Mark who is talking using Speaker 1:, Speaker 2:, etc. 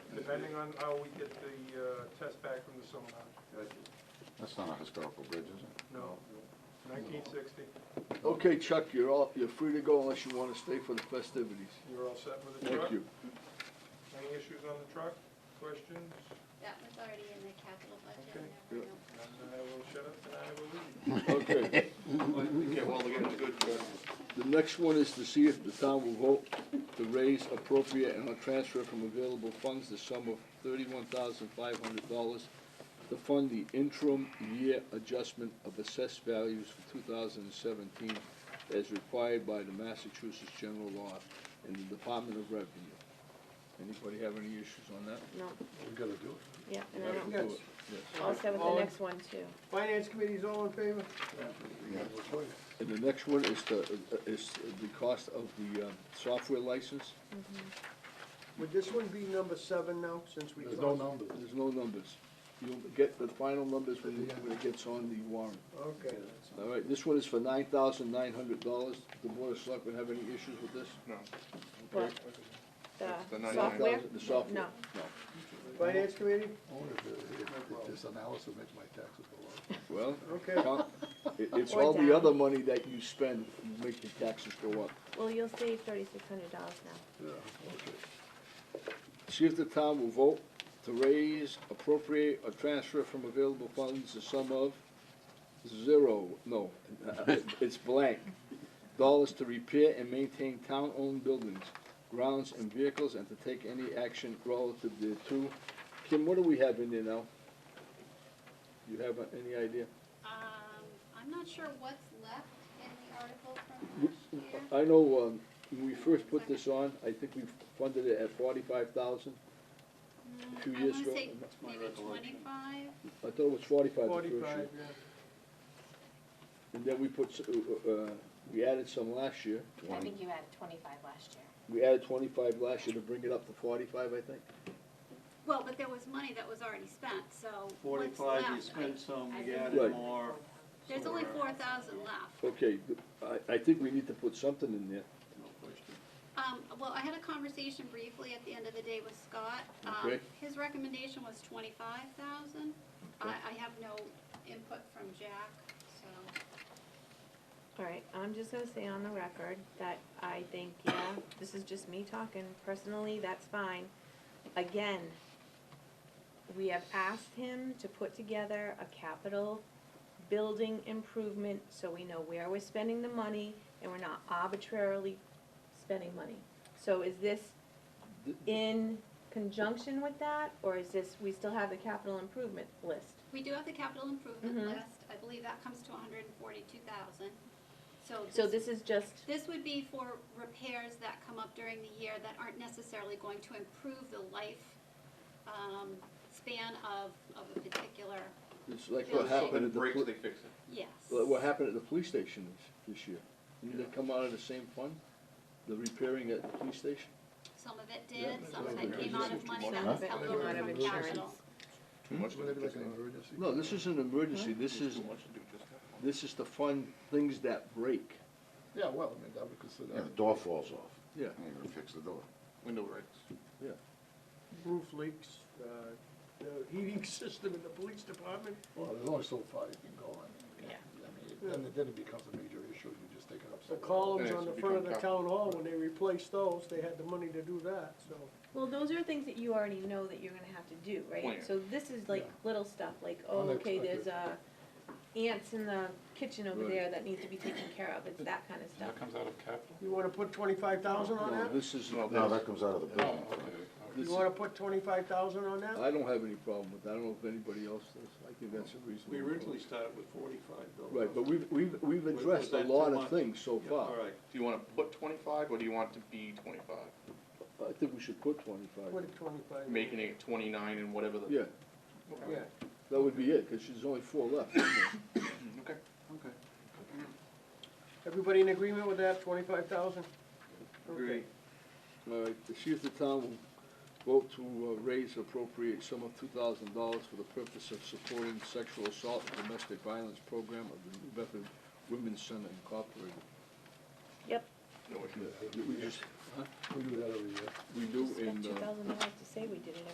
Speaker 1: depending on how we get the uh, test back from the sonar.
Speaker 2: That's not a historical bridge, is it?
Speaker 1: No, 1960,
Speaker 3: Okay, Chuck, you're all, you're free to go unless you wanna stay for the festivities.
Speaker 1: you're all set with the truck?
Speaker 3: Thank you.
Speaker 1: Any issues on the truck? Questions?
Speaker 4: That was already in the capital budget
Speaker 1: Okay.
Speaker 4: and everything else.
Speaker 1: And I will shut up and I will leave.
Speaker 3: Okay,
Speaker 5: Okay, well, we got a good, uh,
Speaker 3: the next one is to see if the town will vote to raise appropriate and or transfer from available funds the sum of thirty-one thousand five hundred dollars to fund the interim year adjustment of assessed values for two thousand and seventeen as required by the Massachusetts General Law and the Department of Revenue. Anybody have any issues on that?
Speaker 6: No,
Speaker 5: we gotta do it.
Speaker 6: yeah, and I don't,
Speaker 3: Do it, yes.
Speaker 6: I'll start with the next one too.
Speaker 7: Finance committee's all in favor?
Speaker 5: We have no choice.
Speaker 3: And the next one is the, uh, is the cost of the um, software license.
Speaker 7: Would this one be number seven now, since we
Speaker 5: There's
Speaker 7: crossed?
Speaker 5: no numbers.
Speaker 3: There's no numbers. You'll get the final numbers when when it gets on the warrant.
Speaker 7: Okay.
Speaker 3: All right, this one is for nine thousand nine hundred dollars. The Board of Selectmen have any issues with this?
Speaker 6: What,
Speaker 2: It's the
Speaker 6: the
Speaker 2: 99.
Speaker 6: software?
Speaker 3: The software?
Speaker 6: No,
Speaker 7: Finance committee?
Speaker 5: I wonder if, if, if this analysis makes my taxes go up.
Speaker 3: Well,
Speaker 7: Okay.
Speaker 3: count- it, it's
Speaker 6: Or
Speaker 3: all
Speaker 6: down.
Speaker 3: the other money that you spend, you make your taxes go up.
Speaker 6: well, you'll save thirty-six hundred dollars now.
Speaker 5: Yeah, okay.
Speaker 3: See if the town will vote to raise, appropriate, or transfer from available funds the sum of zero, no, it's blank, dollars to repair and maintain town-owned buildings, grounds and vehicles, and to take any action relative thereto. Kim, what do we have in there now? You have uh, any idea?
Speaker 4: Um, I'm not sure what's left in the article from last year.
Speaker 3: I know, um, when we first put this on, I think we funded it at forty-five thousand.
Speaker 4: Mm,
Speaker 3: Two years ago,
Speaker 4: I
Speaker 3: that's
Speaker 4: wanna say maybe twenty-five,
Speaker 3: I thought it was forty-five the first year.
Speaker 1: Forty-five, yeah.
Speaker 3: And then we put, s- uh, uh, we added some last year.
Speaker 8: I think you had twenty-five last year.
Speaker 3: We added twenty-five last year to bring it up to forty-five, I think.
Speaker 4: well, but there was money that was already spent, so what's
Speaker 9: Forty-five, you
Speaker 4: left?
Speaker 9: spent some,
Speaker 8: I
Speaker 9: you
Speaker 8: think-
Speaker 3: Right.
Speaker 9: added more.
Speaker 4: There's only four thousand left.
Speaker 3: Okay, th- I, I think we need to put something in there.
Speaker 9: No question.
Speaker 4: Um, well, I had a conversation briefly at the end of the day with Scott. Um,
Speaker 3: Okay.
Speaker 4: his recommendation was twenty-five thousand. I, I have no input from Jack, so.
Speaker 6: All right, I'm just gonna say on the record that I think, yeah, this is just me talking, personally, that's fine. Again, we have asked him to put together a capital building improvement so we know where we're spending the money and we're not arbitrarily spending money. So is this in conjunction with that, or is this, we still have the capital improvement list?
Speaker 4: We do have the capital improvement
Speaker 6: Mhm.
Speaker 4: list, I believe that comes to hundred and forty-two thousand. So
Speaker 6: So
Speaker 4: this,
Speaker 6: this is just,
Speaker 4: this would be for repairs that come up during the year that aren't necessarily going to improve the life, um, span of, of a particular,
Speaker 3: It's like
Speaker 4: Yeah,
Speaker 3: what
Speaker 4: so-
Speaker 3: happened at the, pol-
Speaker 5: fix it.
Speaker 4: yes.
Speaker 3: like what happened at the police station this, this year. Didn't they come out of the same fund, the repairing at the police station?
Speaker 4: Some of it did,
Speaker 5: Yeah,
Speaker 4: some
Speaker 5: so
Speaker 4: of
Speaker 5: we
Speaker 4: it
Speaker 5: can
Speaker 4: came
Speaker 5: just
Speaker 4: out of
Speaker 5: do
Speaker 4: money
Speaker 5: more
Speaker 4: that
Speaker 6: of
Speaker 4: was
Speaker 6: that.
Speaker 4: held
Speaker 6: Came
Speaker 4: over
Speaker 6: out of
Speaker 4: from
Speaker 6: insurance.
Speaker 4: capital.
Speaker 2: Too much to
Speaker 5: Would it be
Speaker 2: do
Speaker 5: like an
Speaker 2: just now.
Speaker 5: emergency?
Speaker 3: No, this isn't an emergency, this is,
Speaker 2: Too much to do just now.
Speaker 3: this is to fund things that break.
Speaker 5: Yeah, well, I mean, I would consider
Speaker 2: Yeah,
Speaker 5: that.
Speaker 2: the door falls off.
Speaker 3: Yeah.
Speaker 2: And you gotta fix the door.
Speaker 5: Window breaks.
Speaker 7: Roof leaks, uh, the heating system in the police department,
Speaker 5: Well, there's only so far you can go, I mean.
Speaker 6: Yeah.
Speaker 5: I mean, then, it- then it becomes a major issue, you just take it up.
Speaker 7: the
Speaker 5: somewhere.
Speaker 7: columns on the front of the town hall, when they replaced those, they had the money to do that, so.
Speaker 6: Well, those are things that you already know that you're gonna have to do, right? So this is like
Speaker 5: Yeah.
Speaker 6: little stuff, like, oh, okay, there's uh, ants in the kitchen over
Speaker 3: Right.
Speaker 6: there that needs to be taken care of, it's that kinda stuff.
Speaker 7: You wanna put twenty-five thousand on
Speaker 3: No,
Speaker 7: that?
Speaker 3: this is,
Speaker 2: No, that comes out of the building.
Speaker 3: this
Speaker 7: You
Speaker 3: is-
Speaker 7: wanna put twenty-five thousand on that?
Speaker 3: I don't have any problem with that. I don't know if anybody else does. I think that's a reasonable.
Speaker 9: We originally
Speaker 3: approach.
Speaker 9: started with forty-five though.
Speaker 3: Right, but we've, we've, we've
Speaker 9: Was- was
Speaker 3: addressed a
Speaker 9: that too
Speaker 3: lot of
Speaker 9: much?
Speaker 3: things so far.
Speaker 9: All right,
Speaker 10: Do you want to put twenty-five or do you want it to be twenty-five?
Speaker 3: I think we should put twenty-five.
Speaker 7: Put it twenty-five.
Speaker 10: Making it twenty-nine and whatever the.
Speaker 3: Yeah,
Speaker 7: Yeah,
Speaker 3: that would be it, because there's only four left. isn't there?
Speaker 10: Okay.
Speaker 9: okay.
Speaker 7: everybody in agreement with that, twenty-five thousand?
Speaker 9: Agree.
Speaker 3: All right, to see if the town will vote to uh, raise appropriate sum of two thousand dollars for the purpose of supporting sexual assault and domestic violence program of the New Bedford Women's Center Incorporated.
Speaker 6: Yep,
Speaker 5: Yeah,
Speaker 3: We just,
Speaker 5: We do that every year.
Speaker 3: we do
Speaker 6: just
Speaker 3: in,
Speaker 6: spent two
Speaker 3: uh,
Speaker 6: thousand dollars to say we did it